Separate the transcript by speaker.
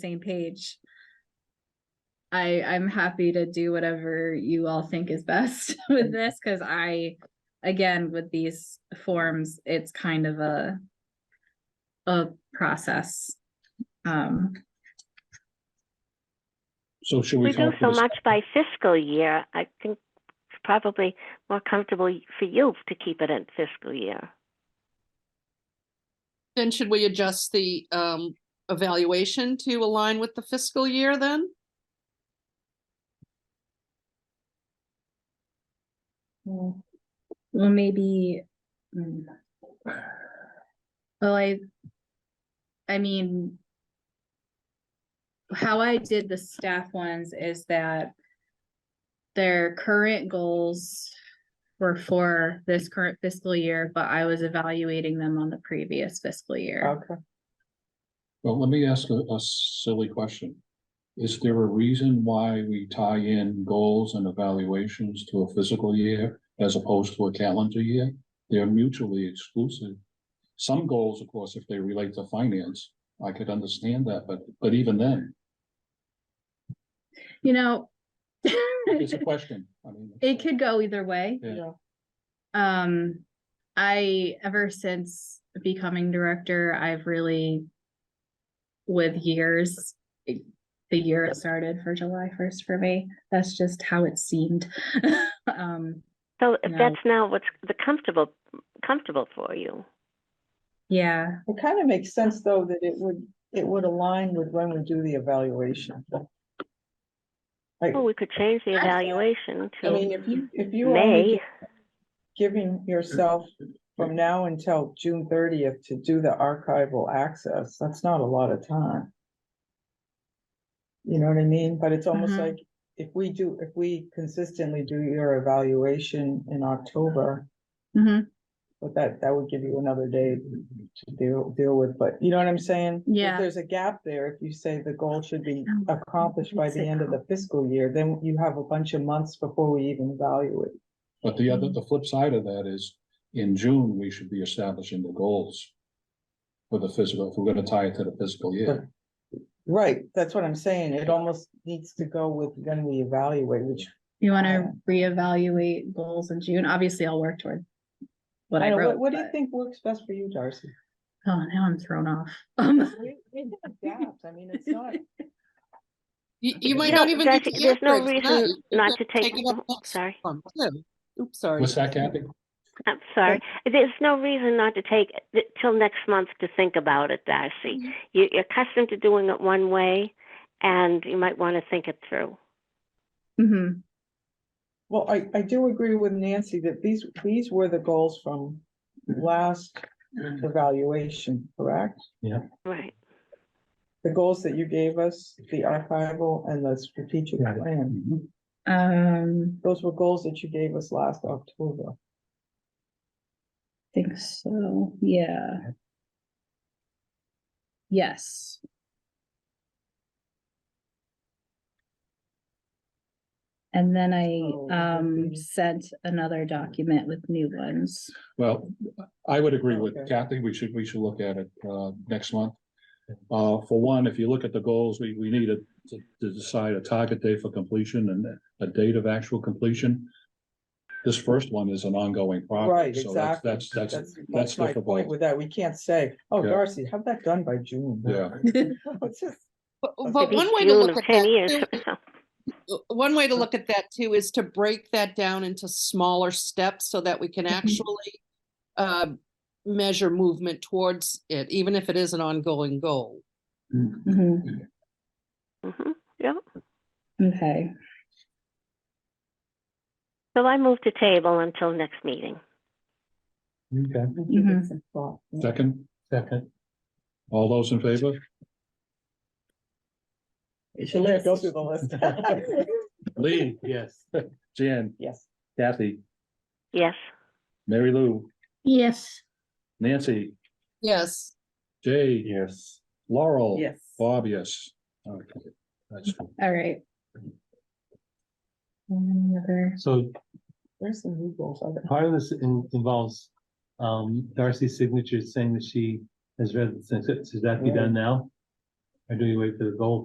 Speaker 1: same page. I, I'm happy to do whatever you all think is best with this, cause I, again, with these forms, it's kind of a. A process. Um,
Speaker 2: So should we
Speaker 3: We do
Speaker 2: come up
Speaker 3: so
Speaker 2: with, a s-
Speaker 3: much by fiscal year. I think it's probably more comfortable for you to keep it in fiscal year.
Speaker 4: Then should we adjust the um evaluation to align with the fiscal year then?
Speaker 1: well, maybe. mm. Well, I. I mean. How I did the staff ones is that. Their current goals were for this current fiscal year, but I was evaluating them on the previous fiscal year.
Speaker 5: Okay.
Speaker 2: well, let me ask a, a silly question. Is there a reason why we tie in goals and evaluations to a physical year as opposed to a calendar year? They're mutually exclusive. Some goals, of course, if they relate to finance, I could understand that, but, but even then,
Speaker 1: You know.
Speaker 2: it's a question. I mean,
Speaker 1: It could go either way.
Speaker 2: Yeah.
Speaker 5: Yeah.
Speaker 1: Um, I, ever since becoming director, I've really. With years, it- the year it started for July first for me, that's just how it seemed. Um,
Speaker 3: So if
Speaker 1: No.
Speaker 3: that's now what's the comfortable, comfortable for you.
Speaker 1: yeah,
Speaker 5: It kind of makes sense, though, that it would, it would align with when we do the evaluation. Like,
Speaker 3: Well, we could change the
Speaker 5: Actually,
Speaker 3: evaluation
Speaker 5: I mean,
Speaker 3: to
Speaker 5: if you, if you
Speaker 3: May.
Speaker 5: are giving yourself from now until June thirtieth to do the archival access, that's not a lot of time. You know what I mean? But it's almost
Speaker 1: Mhm.
Speaker 5: like if we do, if we consistently do your evaluation in October,
Speaker 1: mhm,
Speaker 5: But that, that would give you another day to deal, deal with, but you know what I'm saying? If
Speaker 1: Yeah.
Speaker 5: There's a gap there. If you say the goal should be accomplished by
Speaker 1: What's
Speaker 5: the
Speaker 1: it
Speaker 5: end of the fiscal year, then you have a bunch of months before we even evaluate.
Speaker 2: But the other, the flip side of that is, in June, we should be establishing the goals. For the physical, if we're gonna tie it to the fiscal year,
Speaker 5: Right, that's what I'm saying. It almost needs to go with when we evaluate, which
Speaker 1: you wanna reevaluate goals in June, obviously I'll work toward. What
Speaker 5: I
Speaker 1: I
Speaker 5: don't know,
Speaker 1: wrote,
Speaker 5: what, what do you
Speaker 1: but-
Speaker 5: think works best for you, Darcy?
Speaker 1: oh, now I'm thrown off. Um,
Speaker 5: We- we have gaps. I mean, it's not,
Speaker 4: You you might
Speaker 3: No,
Speaker 4: not even need
Speaker 3: Darcy,
Speaker 4: to
Speaker 3: there's
Speaker 4: answer
Speaker 3: no
Speaker 4: it
Speaker 3: reason
Speaker 4: tonight. You
Speaker 3: not
Speaker 4: can
Speaker 3: to take- Oh,
Speaker 4: it up next
Speaker 3: sorry.
Speaker 4: month, too. Oops, sorry.
Speaker 2: what's that, Kathy?
Speaker 3: I'm sorry. There's no reason not to take it till next month to think about it, Darcy.
Speaker 4: Mhm.
Speaker 3: You- You're accustomed to doing it one way and you might want to think it through.
Speaker 1: mhm,
Speaker 5: well, I, I do agree with Nancy that these, these were the goals from last evaluation, correct?
Speaker 3: Right.
Speaker 5: The goals that you gave us, the archival and the strategic
Speaker 2: Right.
Speaker 5: plan,
Speaker 2: Mhm.
Speaker 1: um,
Speaker 5: those were goals that you gave us last October.
Speaker 1: think so, yeah. Yes. And then
Speaker 5: So,
Speaker 1: I, um,
Speaker 5: maybe-
Speaker 1: sent another document with new ones.
Speaker 2: Well, I would agree with
Speaker 5: Okay.
Speaker 2: Kathy, we should, we should look at it, uh, next month. Uh, for one, if you look at the goals, we, we need to, to decide a target date for completion and a date of actual completion. This first one is an ongoing
Speaker 5: Right,
Speaker 2: project, so that's,
Speaker 5: exactly.
Speaker 2: that's, that's,
Speaker 5: That's my
Speaker 2: difficult.
Speaker 5: point with that. We can't say, oh,
Speaker 2: Yeah.
Speaker 5: Darcy, have that done by June.
Speaker 2: Yeah.
Speaker 5: It's just,
Speaker 4: But
Speaker 5: Okay.
Speaker 4: but
Speaker 3: Maybe
Speaker 4: one way to
Speaker 3: June
Speaker 4: look
Speaker 3: of
Speaker 4: at
Speaker 3: 10
Speaker 4: that
Speaker 3: years
Speaker 4: too- uh,
Speaker 3: or so.
Speaker 4: one way to look at that too is to break that down into smaller steps so that we can
Speaker 1: Mhm.
Speaker 3: Mm-hmm.
Speaker 4: actually uh, measure movement towards it, even if it is an ongoing goal.
Speaker 1: Mhm,
Speaker 3: Mhm. Yeah.
Speaker 1: Okay,
Speaker 3: So I move to table until next meeting.
Speaker 2: Okay.
Speaker 5: we give it some thought.
Speaker 2: Second? Second. All those in favor?
Speaker 5: It's a list. Go through the list.
Speaker 2: Lee? Yes. Jan,
Speaker 5: Yes.
Speaker 2: Kathy,
Speaker 3: Yes.
Speaker 2: Mary Lou,
Speaker 6: Yes,
Speaker 2: Nancy,
Speaker 4: Yes,
Speaker 2: Jay. Yes. Laurel.
Speaker 5: Yes.
Speaker 2: Bob, yes. Okay, that's-
Speaker 1: all right. Any other-
Speaker 7: So
Speaker 5: There's some new goals. I
Speaker 7: part of this in- involves um Darcy's signature saying that she has read the sentence. Should that be done now? I do wait for the goal